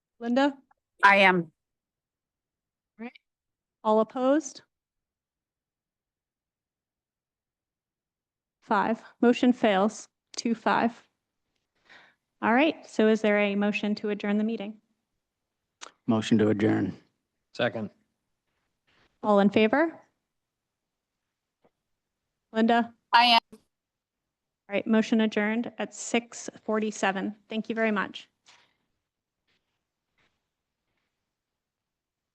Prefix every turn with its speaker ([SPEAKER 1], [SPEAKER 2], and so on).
[SPEAKER 1] Linda,
[SPEAKER 2] I am.
[SPEAKER 1] all opposed? Five, motion fails, two, five. All right, so is there a motion to adjourn the meeting?
[SPEAKER 3] Motion to adjourn.
[SPEAKER 4] Second.
[SPEAKER 1] All in favor? Linda,
[SPEAKER 2] I am.
[SPEAKER 1] all right, motion adjourned at 6:47. Thank you very much.